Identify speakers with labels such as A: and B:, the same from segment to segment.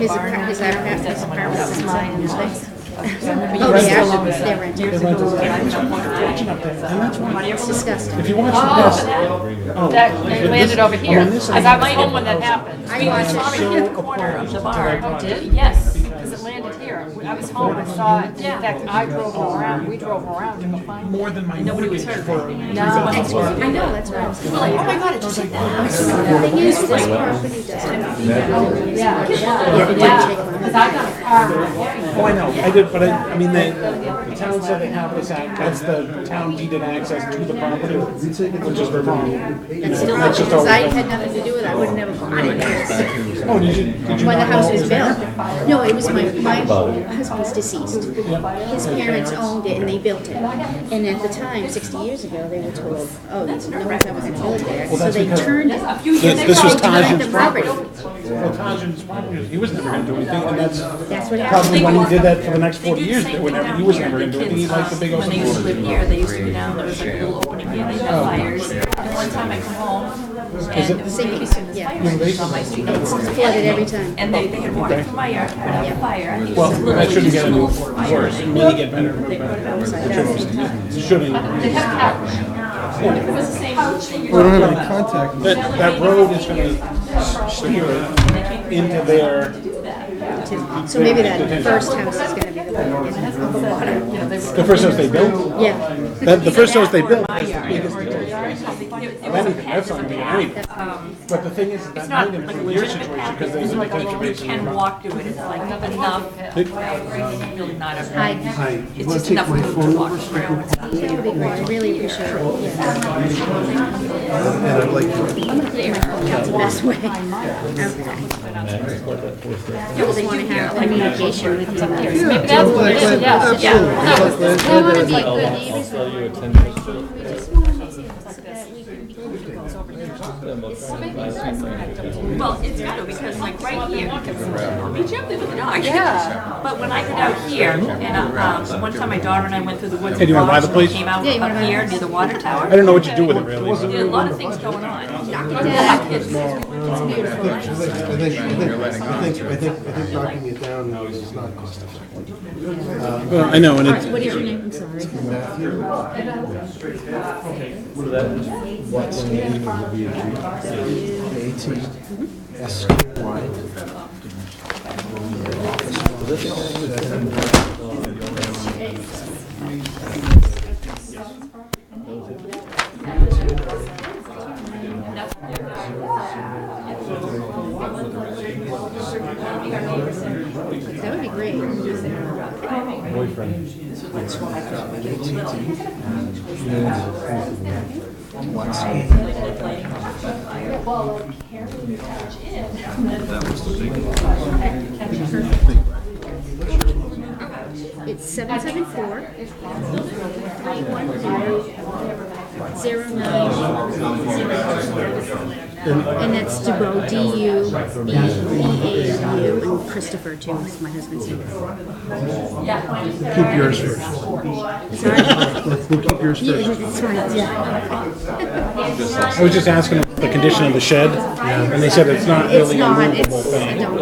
A: His apartment, his apartment, his apartment was mine, and his. Oh, they
B: rented
A: actually, they rented.
B: They rented it. And that's why,
A: It's disgusting.
B: if you watch the best,
C: That it landed over here. I got my own when that happened.
A: I watched it.
C: Here at the corner of the bar. Oh, did? Yes, because it landed here. I was home, I saw it. In fact, I drove around, we drove around to go find it.
B: more than my mortgage for.
A: Oh, I know, that's what I was. Oh, my God, it just hit that. The thing is, this property does everything. Yeah,
C: Because I got a car.
B: Oh, I know, I did, but I, I mean, they, the town said they have this act, that's the town deeded access to the property, which is Vermont.
A: That's still, because I had nothing to do with it, I wouldn't have bought it.
B: Oh, did you, did you
A: When the
B: not know
A: house
B: it
A: was
B: was there?
A: built. No, it was my, my husband's deceased. His parents owned it and they built it. And at the time, sixty years ago, they were told, oh, no one's ever gonna build there. So they turned it.
B: This- this was
A: They turned
B: Tajin's
A: the property.
B: Well, Tajin's property, he was never gonna do anything, and that's
A: That's what happened.
B: probably when he did that for the next forty years, that whenever, he was never gonna do anything, he liked the big old.
D: When they used to live here, they used to go down, there was like a little opening here,
A: Oh,
D: they had fires. And one time I come home, and it was
A: Same,
D: babysitting
A: yeah.
D: fires on my street.
A: Flooded every time.
D: And they, they had water from my yard, had a fire. It was
B: Well, that
D: literally
B: shouldn't get
D: just
B: any
D: a
B: worse,
D: little fire.
B: it may get better, but it shouldn't.
C: They had a car.
D: It was the same old thing.
E: We don't have any contact. with
B: That, that road is gonna steer it into their,
A: So maybe that first house is gonna be the one.
B: the first house they built,
A: Yeah,
B: that, the first house they built,
D: My yard, or your yard, something. It it was a
B: anything, that's not gonna be anything.
D: Um,
B: But the thing is, that
D: It's
B: might
D: not like a
B: improve your
D: legitimate
B: situation,
D: path,
B: because
D: it's
B: there's a
D: like a
B: detention
D: little, you
B: basin.
D: can walk to it, it's like enough. Really not enough.
E: Hi, you
D: It's
E: wanna
D: just
E: take
D: enough
E: my
D: room
E: phone
D: to walk
E: number so I can
D: around.
A: that would be great, I really appreciate it. Yeah,
E: And I'd like to-
A: That's the best way. Okay.
D: Yeah, well, they do here, like,
A: Communication with you.
C: Maybe that's what it is, yes.
E: Absolutely. It's like last night, there was like-
D: Well, it's gotta, because like right here, we jumped in with the dog. Yeah. But when I get out here, and uh, um, one time my daughter and I went through the woods.
B: Hey, do you wanna buy the
D: and
B: place?
D: Came out
A: Yeah, you wanna
D: up
A: buy
D: here
A: the
D: near the water tower.
B: I don't know what you do with it really, but-
D: There are a lot of things going on.
E: I think, I think, I think, I think, I think knocking it down is not cost effective.
B: Well, I know, and it's.
A: What is your name, I'm sorry? That would be great. It's seven seven four. Three one zero. Zero nine. zero. And that's Dubo, D U B E A N U, and Christopher too, is my husband's name.
E: Keep yours first. We'll keep yours
A: Yeah,
E: first.
A: that's right, yeah.
B: I was just asking about the condition of the shed, and they said it's not
A: It's
B: really a
A: not, it's,
B: movable
A: I
B: thing.
A: don't.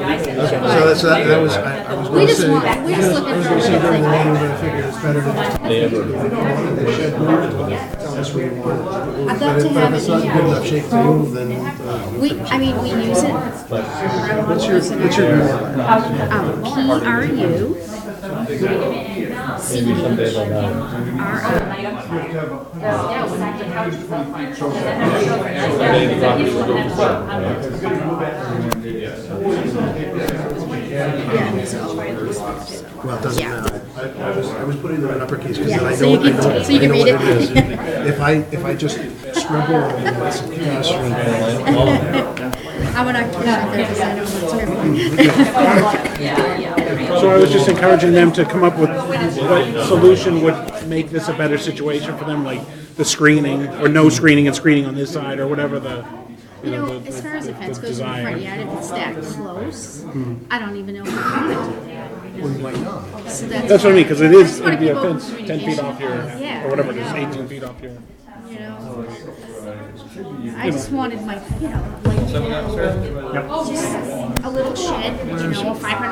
E: So that's, that that was, I I was
A: We
E: gonna
A: just
E: say, I
A: want, we're just looking for a
E: was
A: little thing.
E: gonna say, but I figured it's better to just they shed moved, tell us what you want.
A: I'd
E: But
A: love to
E: if but if
A: have
E: it's not in
A: it,
E: good enough shape to move, then. uh,
A: we, I mean, we use it. What's your,
E: What's your new one?
A: Um, P R U. C R I. Yeah, so-
E: Well, it doesn't
A: Yeah.
E: matter. I I was, I was putting them in uppercase because
A: Yeah,
E: then I
A: so
E: know,
A: you
E: I
A: can-
E: know,
A: so you
E: I
A: can
E: know
A: read
E: what
A: it.
E: it is. If I, if I just scribble and add some chaos or anything.
A: I'm an occupational therapist, I know what
B: So I was just encouraging them to come up with what solution would make this a better situation for them, like the screening, or no screening and screening on this side, or whatever the,
A: You
B: you know,
A: know,
B: the-
A: as far as the
B: the-
A: fence
B: the
A: goes in the
B: desire.
A: front yard, if it's that close, I don't even know if I want it.
E: Well, you might not.
A: So
B: That's what I mean, because it
A: I
B: is,
A: just wanna
B: it'd be a
A: keep open
B: fence ten feet
A: communication.
B: off here,
A: Yeah,
B: or whatever
A: I
B: it is,
A: know.
B: eighteen feet off here.
A: You know,
F: I just wanted my, you know, like, you know, just a little shed, you know, five hundred